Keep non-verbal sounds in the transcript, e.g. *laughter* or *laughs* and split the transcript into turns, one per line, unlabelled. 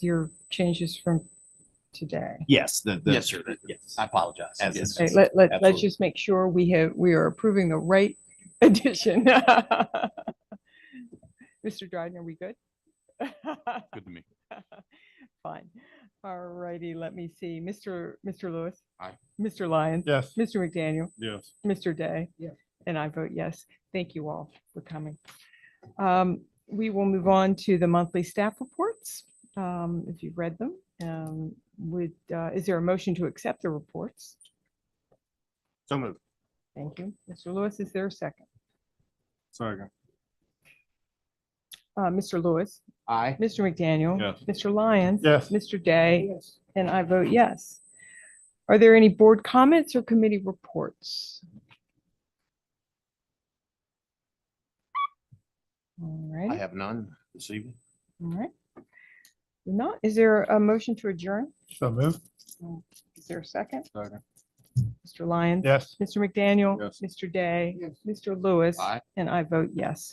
your changes from today.
Yes, the, the.
Yes, sir.
Yes.
I apologize.
As
Yes.
Okay, let, let, let's
Absolutely.
just make sure we have, we are approving the right *laughs* addition. *laughs* Mr. Dryden, are we good? *laughs*
Good to me.
Fine. All righty, let me see. Mr. Mr. Lewis?
Aye.
Mr. Lyons?
Yes.
Mr. McDaniel?
Yes.
Mr. Day?
Yes.
And I vote yes. Thank you all for coming. Um, We will move on to the monthly staff reports, um, if you've read them. Um, Would, uh, is there a motion to accept the reports?
So moved.
Thank you. Mr. Lewis, is there a second?
Second.
Uh, Mr. Lewis,
Aye.
Mr. McDaniel.
Yes.
Mr. Lyons.
Yes.
Mr. Day. And I vote yes. Are there any board comments or committee reports? All
I
right, all
have none this evening.
right. Not, is there a motion to adjourn?
So moved.
Is there a second?
Second.
Mr. Lyons.
Yes.
Mr. McDaniel.
Yes.
Mr. Day.
Yes.
Mr. Lewis.
Aye.
And I vote yes.